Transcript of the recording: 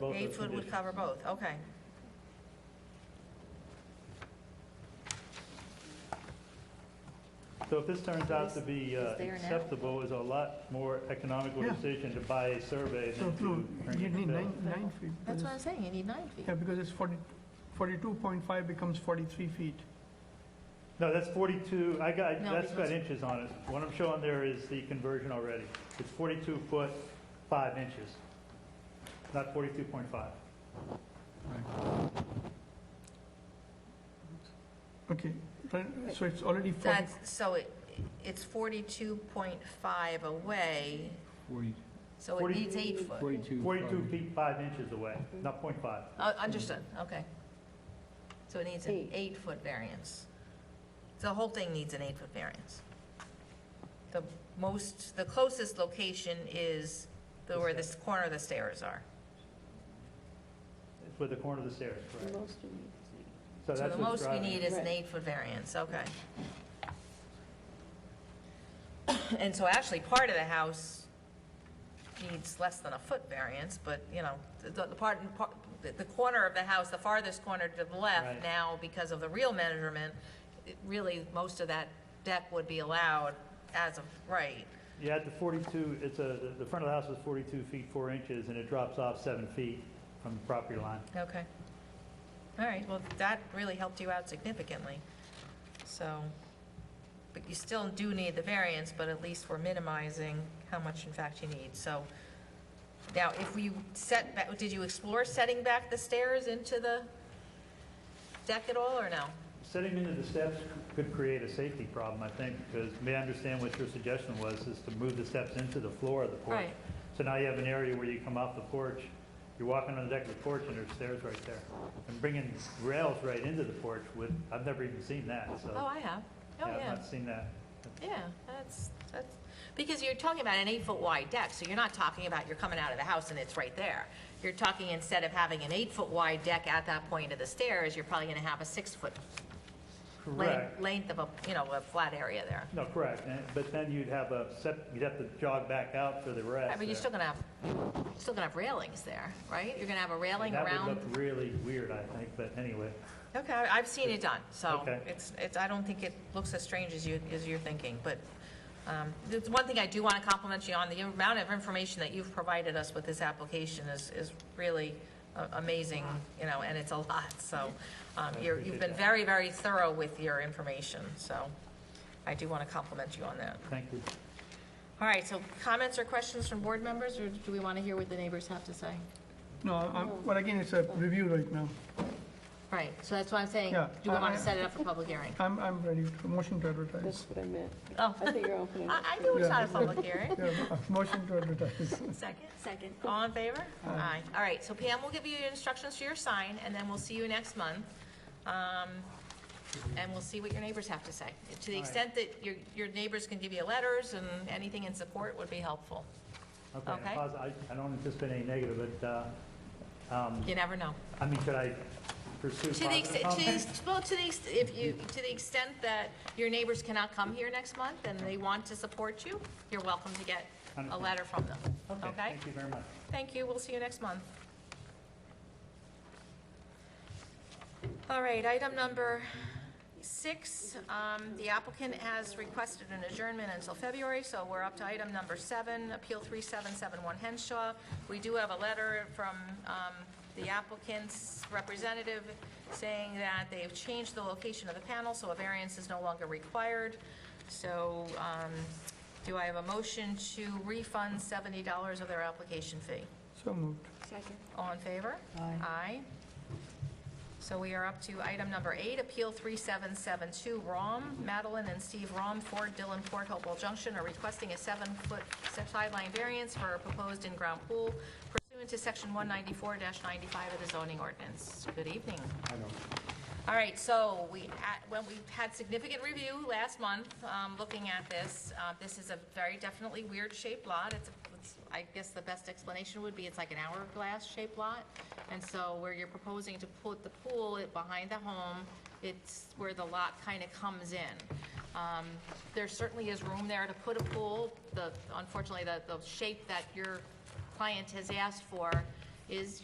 both Eight those foot would conditions. cover both, okay. So if this turns out to be uh, Is there now? acceptable, it's a lot more economical Yeah. decision to buy a survey than So, no, to bring you it to need nine, build. nine feet. That's what I'm because- saying, you need nine feet. Yeah, because it's 40, 42.5 becomes 43 feet. No, that's 42, I got, No, that's got because- inches on it. What I'm showing there is the conversion already. It's 42 foot, 5 inches, not 42.5. Okay, right, so it's already 40. That's, so it, it's forty-two point five away, 40 so it Forty- needs eight foot. 42. 42 probably. feet, 5 inches away, not .5. Uh, Understood, okay. So it needs an Eight. eight-foot variance. The whole thing needs an eight-foot variance. The most, the closest location is the, where this corner of the stairs are. It's with the corner of the stairs, correct? Most of these. So So that's the what's most we driving. need is an Right. eight-foot variance, okay. And so actually, part of the house needs less than a foot variance, but, you know, the, the part, part- the- the corner of the house, the farthest corner to the left Right. now, because of the real measurement, it- really, most of that deck would be allowed as of right. You add the 42, it's a, the- the front of the house is 42 feet, 4 inches, and it drops off 7 feet from the property line. Okay. All right, well, that really helped you out significantly, so, but you still do need the variance, but at least we're minimizing how much in fact you need, so. Now, if we set, back, did you explore setting back the stairs into the deck at all, or no? Setting into the steps could create a safety problem, I think, because may I understand what your suggestion was, is to move the steps into the floor of the porch. Right. So now you have an area where you come off the porch, you're walking on the deck of the porch, and there's stairs right there. And bringing rails right into the porch would, I've never even seen that, so. Oh, I have, oh, I've yeah, not seen that. yeah, that's, that's, because you're talking about an eight-foot wide deck, so you're not talking about you're coming out of the house and it's right there. You're talking instead of having an eight-foot wide deck at that point of the stairs, you're probably gonna have a six-foot length, Correct. length of a, you know, a flat area there. No, correct, And- but then you'd have a, sep- you'd have to jog back out for the rest. Right, but you're there. still gonna have, still gonna have railings there, right? You're gonna have a railing That around. would look really weird, I think, but anyway. Okay, I- I've seen it done, so Okay. it's, it's, I don't think it looks as strange as you, as you're thinking, but, um, it's one thing I do want to compliment you on, the amount of information that you've provided us with this application is, is really a- amazing, you know, and it's a lot, so, um, you're, you've been appreciate that. very, very thorough with your information, so I do want to compliment you on that. Thank you. All right, so comments or questions from board members, or do we want to hear what the neighbors have to say? No, I'm- but again, it's a review right now. Right, so that's why I'm saying, Yeah, do we want I- uh, to set it up for public hearing? I'm, I'm ready, to- motion to advertise. That's what I meant. Oh, I think you're opening. I, I knew it's not a public hearing. Yeah, uh, motion to advertise. Second? Second. All in favor? Aye. All right, so Pam will give you instructions for your sign, and then we'll see you next month. Um, And we'll see what your neighbors have to say. To the extent that your, your neighbors can give you letters and anything in support would be helpful. Okay, and Okay. posi- I I don't anticipate any negative, but, uh, um, You never know. I mean, could I pursue To the positive extent, to, the comments? ex- well, to the, ex- if you, to the extent that your neighbors cannot come here next month and they want to support you, you're welcome to get a Understand. letter from them, Okay, okay? thank you very much. Thank you, we'll see you next month. All right, item number six, um, the applicant has requested an adjournment until February, so we're up to item number seven, Appeal 3771 Henshaw. We do have a letter from um, the applicant's representative saying that they've changed the location of the panel, so a variance is no longer required. So um, do I have a motion to refund $70 of their application fee? So moved. Second. All in favor? Aye. So we are up to item number eight, Appeal 3772, Rom. Madeline and Steve Rom, 4 Dillon Port Hopewell Junction, are requesting a seven-foot sideline variance for a proposed in-ground pool pursuant to Section 194-95 of the zoning ordinance. Good evening. All right, so we, at- when we had significant review last month, um, looking at this, uh, this is a very definitely weird shaped lot. It's, a- it's- I guess the best explanation would be it's like an hourglass shaped lot. And so where you're proposing to put the pool it- behind the home, it's where the lot kind of comes in. Um, There certainly is room there to put a pool. The, unfortunately, the, the shape that your client has asked for is,